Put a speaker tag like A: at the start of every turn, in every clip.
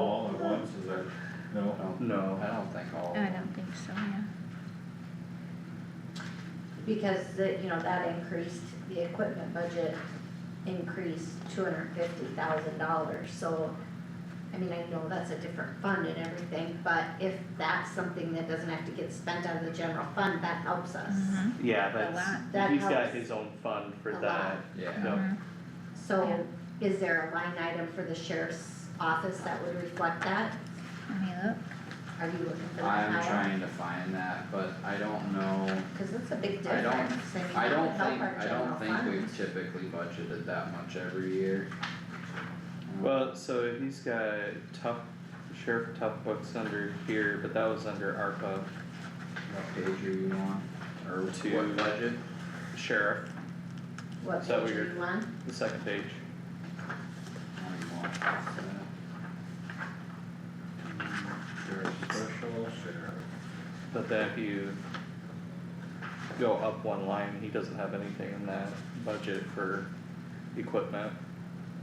A: Oh,
B: Because the, you know, that increased, the equipment budget increased two hundred and fifty thousand dollars, so. I mean, I know that's a different fund and everything, but if that's something that doesn't have to get spent out of the general fund, that helps us.
A: Mhm.
C: Yeah,
A: lot.
B: That
C: that's, he's got
B: helps.
C: his own fund for
B: A lot. Mm-hmm.
C: that,
D: Yeah,
C: Yep.
A: Mhm.
B: So is there a line item for the sheriff's office that would reflect that?
A: Let me look.
B: Are you looking for that
D: I'm
B: item?
D: trying to find that, but I don't know,
B: Cause it's a big
D: I
B: difference,
D: don't-
B: I mean,
D: I
B: that would
D: don't
B: help
D: think,
B: our
D: I
B: general
D: don't think
B: fund.
D: we've typically budgeted that much every year. Um,
C: Well, so he's got tough, Sheriff Tough Books under here, but that was under ARPA
D: What page are you on, or
C: To-
D: what budget?
C: Sheriff,
B: What
C: Is that what
B: page are
C: you're-
B: you on?
C: the second page.
D: Or you want to pass
E: Sheriff Special, Sheriff,
C: But then if you go up one line, he doesn't have anything in that budget for equipment.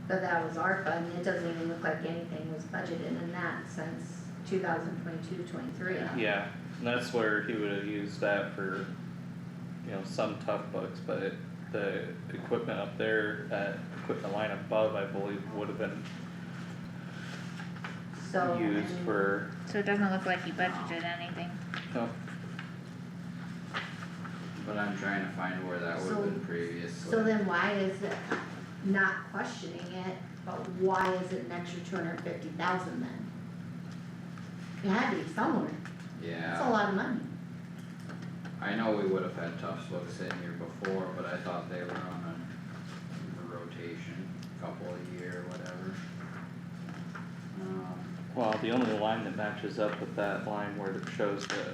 B: But that was ARPA and it doesn't even look like anything was budgeted in that since 2022-23.
C: Yeah, and that's where he would have used that for, you know, some tough books, but the equipment up there, that equipment line above, I believe, would have been
B: So, I
C: used
B: mean,
C: for,
A: So it doesn't look like you budgeted anything.
C: no,
D: But I'm trying to find where that
B: So-
D: would've been previously.
B: So then why is it not questioning it, but why is it an extra two hundred and fifty thousand then? It had to be somewhere, that's a
D: Yeah,
B: lot of money,
D: I know we would've had Tufts books in here before, but I thought they were on a rotation, couple a year, whatever. Um.
C: well, the only line that matches up with that line where it shows the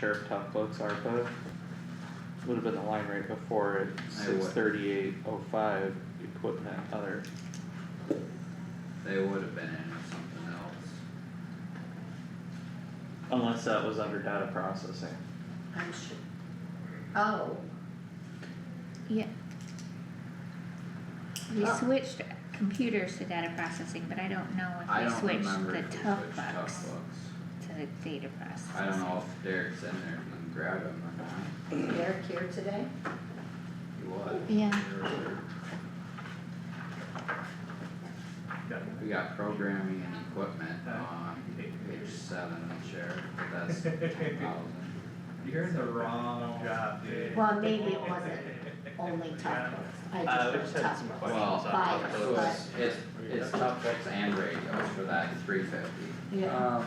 C: sheriff tough books ARPA would have been the line right before it,
D: I would.
C: six thirty-eight oh five, equipment other.
D: They would have been in with something else.
C: Unless that was under data processing.
B: I'm sure. Oh,
A: Yeah. We
B: Oh.
A: switched computers to data processing, but I don't know
D: I
A: if we
D: don't
A: switched
D: remember
A: the
D: if we
A: tough
D: switched tough
A: bucks
D: books.
A: to the data processing.
D: I don't know if Derek's in there, if you can grab him or not.
B: is Derek here today?
E: he was.
A: Yeah.
D: We got programming and equipment on page seven of the sheriff, but that's ten thousand.
F: You're in the wrong job, dude.
B: Well, maybe it wasn't only tough books, I
E: Uh, we
B: just
E: just
B: heard
E: had
B: tough
E: some
B: books.
D: Well,
E: questions on
B: Five,
E: top
D: So
E: of
B: but-
E: those.
D: it's, it's, it's tough books and radios for that three fifty. Uh, Um,
B: Yeah,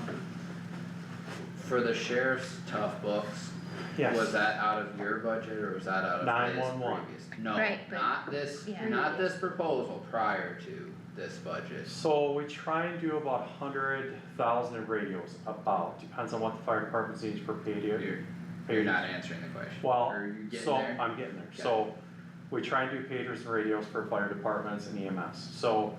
D: For the sheriff's tough books, was that out of your budget or was that out of his
E: 911.
D: previous?
A: Right,
D: No,
A: but-
D: not this,
A: Yeah.
D: not this proposal prior to this budget.
G: So we try and do about a hundred thousand of radios, about, depends on what the fire department needs per
D: You're,
G: radio.
D: you're not answering the question.
G: Well,
D: Are you getting
G: So
D: there?
G: I'm getting there,
D: Okay.
G: so we try and do pagers and radios for fire departments and EMS, so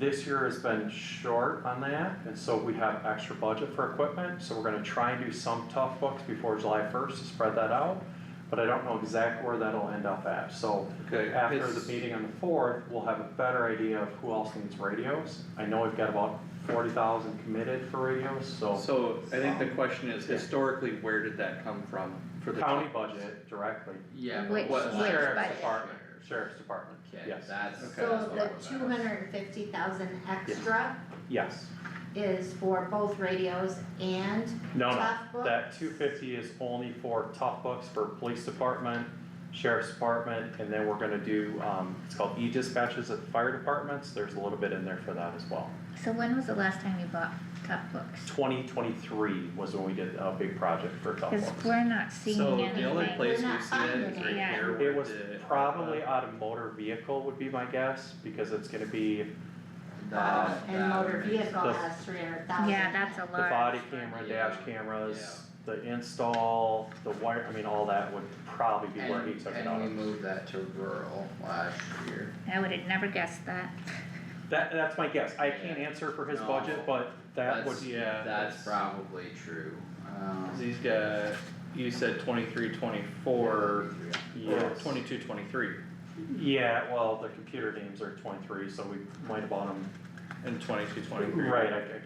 G: this year has been short on that, and so we have extra budget for equipment, so we're gonna try and do some tough books before July first to spread that out. But I don't know exactly where that'll end up at, so
C: Okay,
G: after
C: it's-
G: the meeting on the fourth, we'll have a better idea of who else needs radios. I know we've got about forty thousand committed for radios, so
C: So I think the question is historically, where did that come from for the?
G: county budget directly,
D: Yeah, but
A: Which-
D: what?
A: which
D: sheriff's
A: budget?
D: department?
G: sheriff's department,
D: Okay,
G: yes,
D: that's, that's
B: so
D: what
B: the
D: it was
B: two
D: at.
B: hundred and fifty thousand extra
G: yes.
B: is for both radios and
G: No,
B: tough books?
G: no, Um, that two fifty is only for tough books for police department, sheriff's department, and then we're gonna do, um, it's called e-dispatches at fire departments, there's a little bit in there for that as well.
A: So when was the last time you bought tough books?
G: Twenty twenty-three was when we did a big project for tough
A: Cause
G: books.
A: we're not seeing
C: So
A: anything.
C: the only place
B: We're
C: we
B: not
C: see that is
B: finding
A: it.
C: right
A: Yeah.
C: here where
G: It was
D: uh,
C: the-
G: probably out of motor vehicle would be my guess, because it's gonna be
D: That-
B: And
D: that
B: motor
D: makes-
B: vehicle
G: The-
B: has three hundred thousand.
A: Yeah, that's a
G: the
A: large.
G: body camera,
D: Yeah.
G: dash cameras, the install, the wire, I mean, all that would probably be where he
D: And,
G: took it out
D: and we
G: of.
D: moved that to rural last year.
A: I would have never guessed that.
G: That, that's my guess, I can't answer for his
D: No.
G: budget, but that would,
D: That's-
C: Yeah,
D: That's probably true,
C: Cause
D: um.
C: he's got, you said twenty-three, twenty-four, or
G: Yes.
C: twenty-two, twenty-three,
G: Yeah, well, the computer games are twenty-three, so we might have bought them,
C: and twenty-two, twenty-three.
G: right, I, I